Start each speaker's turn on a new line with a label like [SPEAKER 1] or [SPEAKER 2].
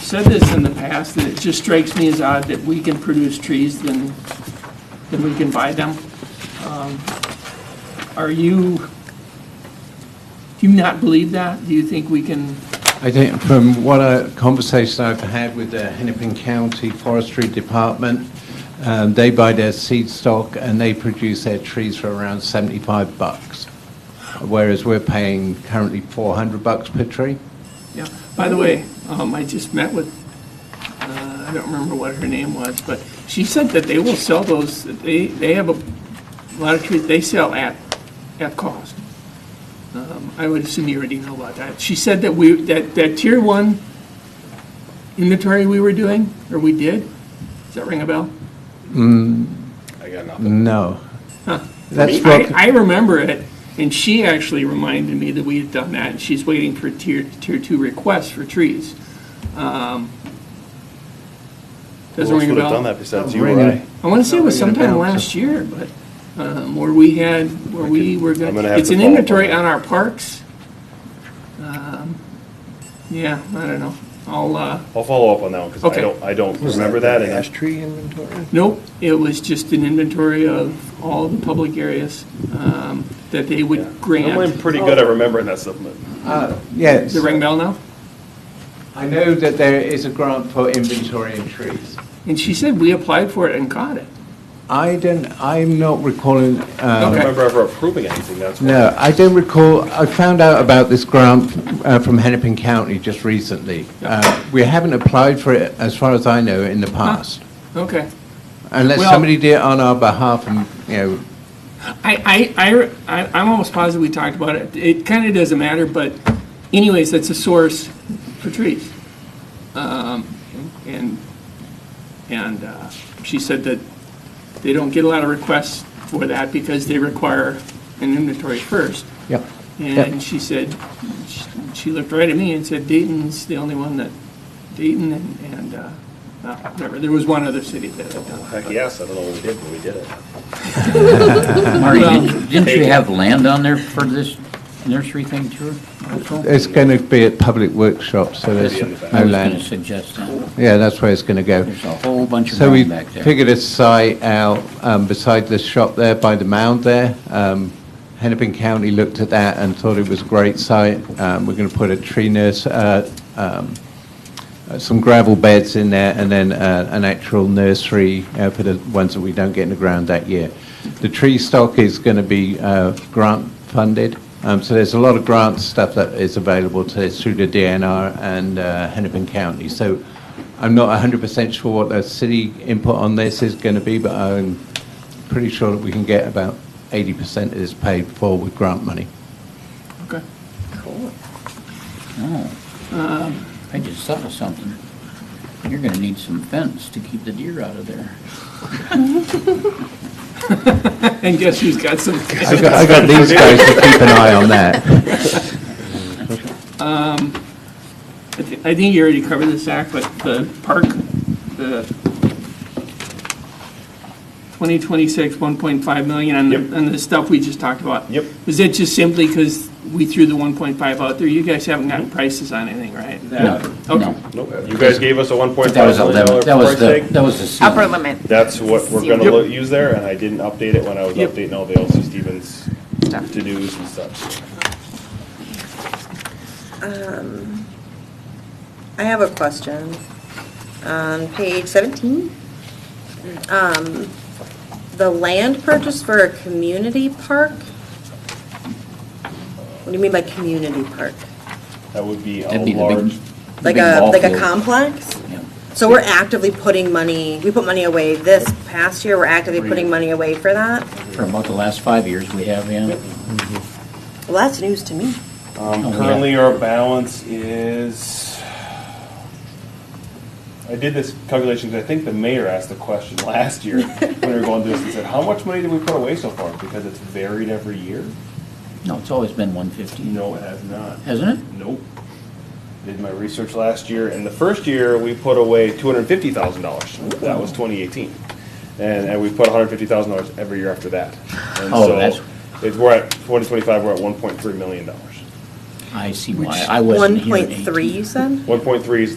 [SPEAKER 1] said this in the past, that it just strikes me as odd that we can produce trees than, than we can buy them. Um, Are you, do you not believe that? Do you think we can,
[SPEAKER 2] I think from what a conversation I've had with the Hennepin County Forestry Department, um, they buy their seed stock and they produce their trees for around 75 bucks, whereas we're paying currently 400 bucks per tree.
[SPEAKER 1] yeah, by the way, um, I just met with, uh, I don't remember what her name was, but she said that they will sell those, they, they have a lot of trees, they sell at, at cost. Um, I would assume you already know about that. She said that we, that, that tier one inventory we were doing, or we did, does that ring a bell?
[SPEAKER 3] I got nothing.
[SPEAKER 2] No. That's
[SPEAKER 1] I,
[SPEAKER 2] what,
[SPEAKER 1] I remember it, and she actually reminded me that we had done that, and she's waiting for tier, tier two requests for trees. Um, Doesn't
[SPEAKER 3] Who else
[SPEAKER 1] ring a
[SPEAKER 3] would have done
[SPEAKER 1] bell.
[SPEAKER 3] that besides
[SPEAKER 2] Doesn't
[SPEAKER 3] you or
[SPEAKER 2] ring a-
[SPEAKER 3] I?
[SPEAKER 1] I want to say it was
[SPEAKER 2] Not ringing a
[SPEAKER 1] sometime
[SPEAKER 2] bell,
[SPEAKER 1] last year, but, um, where we had, where we were,
[SPEAKER 3] I'm
[SPEAKER 1] gonna-
[SPEAKER 3] gonna have
[SPEAKER 1] it's
[SPEAKER 3] to
[SPEAKER 1] an
[SPEAKER 3] follow up on
[SPEAKER 1] inventory
[SPEAKER 3] that.
[SPEAKER 1] on our parks. Um, Yeah, I don't know. I'll, uh,
[SPEAKER 3] I'll follow up on that one, because
[SPEAKER 1] Okay.
[SPEAKER 3] I don't, I don't remember that, and
[SPEAKER 4] Ash
[SPEAKER 3] I-
[SPEAKER 4] tree inventory?
[SPEAKER 1] Nope, it was just an inventory of all the public areas um, that they would
[SPEAKER 3] I'm
[SPEAKER 1] grant. Oh.
[SPEAKER 3] pretty good at remembering that stuff, but
[SPEAKER 2] uh, yes.
[SPEAKER 1] The ring bell now?
[SPEAKER 2] I know that there is a grant for inventory in trees.
[SPEAKER 1] And she said we applied for it and got it.
[SPEAKER 2] I don't, I'm not recalling,
[SPEAKER 3] I
[SPEAKER 2] um,
[SPEAKER 3] don't
[SPEAKER 1] Okay.
[SPEAKER 3] remember ever approving anything, that's why.
[SPEAKER 2] No, I don't recall, I found out about this grant uh, from Hennepin County just recently. Uh, We haven't applied for it, as far as I know, in the past,
[SPEAKER 1] Okay.
[SPEAKER 2] unless
[SPEAKER 1] Well-
[SPEAKER 2] somebody did it on our behalf and, you know,
[SPEAKER 1] I, I, I, I- I'm almost positive we talked about it. It kind of doesn't matter, but anyways, that's a source for trees. Um, And, and uh, she said that they don't get a lot of requests for that because they require an inventory first.
[SPEAKER 2] yeah.
[SPEAKER 1] And she said, she- she looked right at me and said Dayton's the only one that, Dayton and, and, uh, uh, whatever, there was one other city that had done it.
[SPEAKER 3] Heck, yes, I don't know what we did, but we did it.
[SPEAKER 5] Marty,
[SPEAKER 1] Well-
[SPEAKER 5] didn't didn't you have land on there for this nursery thing too? also?
[SPEAKER 2] It's going to be at public workshops, so there's
[SPEAKER 3] Maybe in the back.
[SPEAKER 5] I
[SPEAKER 2] no
[SPEAKER 5] was gonna
[SPEAKER 2] land.
[SPEAKER 5] suggest that.
[SPEAKER 2] Yeah, that's where it's going to go.
[SPEAKER 5] There's a whole bunch of
[SPEAKER 2] So we
[SPEAKER 5] land back there.
[SPEAKER 2] figured a site out um, beside the shop there, by the mound there. Um, Hennepin County looked at that and thought it was a great site. Um, We're going to put a tree nurse, uh, um, uh, some gravel beds in there, and then uh, an actual nursery uh, for the ones that we don't get in the ground that year. The tree stock is going to be uh, grant funded, Um, so there's a lot of grant stuff that is available to us through the DNR and uh, Hennepin County. So I'm not 100% sure what the city input on this is going to be, but I'm pretty sure that we can get about 80% of this paid for with grant money.
[SPEAKER 1] Okay. Cool.
[SPEAKER 5] Oh. I just saw something. You're gonna need some fence to keep the deer out of there.
[SPEAKER 1] And guess who's got some?
[SPEAKER 2] I got- I got these guys to keep an eye on that.
[SPEAKER 1] I thi- I think you already covered this, Zach, but the park, the 2026, 1.5 million on
[SPEAKER 3] Yep.
[SPEAKER 1] the, on the stuff we just talked about.
[SPEAKER 3] Yep.
[SPEAKER 1] Was that just simply because we threw the 1.5 out there? You guys haven't gotten prices on anything, right?
[SPEAKER 5] No,
[SPEAKER 1] Okay.
[SPEAKER 5] no.
[SPEAKER 3] Nope, you guys gave us a one point
[SPEAKER 5] But that
[SPEAKER 3] five
[SPEAKER 5] was a
[SPEAKER 3] million dollar
[SPEAKER 5] limit, that was
[SPEAKER 3] price
[SPEAKER 5] the,
[SPEAKER 3] tag.
[SPEAKER 5] that was the ceiling.
[SPEAKER 6] upper limit
[SPEAKER 3] That's what we're gonna
[SPEAKER 1] Yep.
[SPEAKER 3] lo- use there, and I didn't update it when I was
[SPEAKER 1] Yep.
[SPEAKER 3] updating all the LC Stevens
[SPEAKER 6] Stuff.
[SPEAKER 3] to-dos and stuff.
[SPEAKER 7] I have a question. On page 17, um, the land purchase for a community park? What do you mean by community park?
[SPEAKER 3] That would be a
[SPEAKER 5] That'd be the big-
[SPEAKER 3] large,
[SPEAKER 5] the
[SPEAKER 7] Like
[SPEAKER 5] big
[SPEAKER 7] a,
[SPEAKER 5] ball
[SPEAKER 7] like a
[SPEAKER 5] field.
[SPEAKER 7] complex?
[SPEAKER 5] Yeah.
[SPEAKER 7] So we're actively putting money, we put money away this past year, we're actively putting money away for that?
[SPEAKER 5] For about the last five years we have, yeah.
[SPEAKER 7] Well, that's news to me.
[SPEAKER 3] um,
[SPEAKER 5] Oh, yeah.
[SPEAKER 3] currently our balance is, I did this calculation, 'cause I think the mayor asked the question last year when we were going through this, and said, how much money did we put away so far? Because it's varied every year?
[SPEAKER 5] No, it's always been one fifty,
[SPEAKER 3] No, it has not.
[SPEAKER 5] hasn't it?
[SPEAKER 3] Nope. Did my research last year, and the first year, we put away two hundred and fifty thousand dollars. That was twenty eighteen. And, and we put hundred and fifty thousand dollars every year after that. And
[SPEAKER 5] Oh,
[SPEAKER 3] so
[SPEAKER 5] that's-
[SPEAKER 3] It's, we're at, twenty twenty-five, we're at one point three million dollars.
[SPEAKER 5] I see why, I wasn't here in 18.
[SPEAKER 7] 1.3, you said?
[SPEAKER 3] One point three is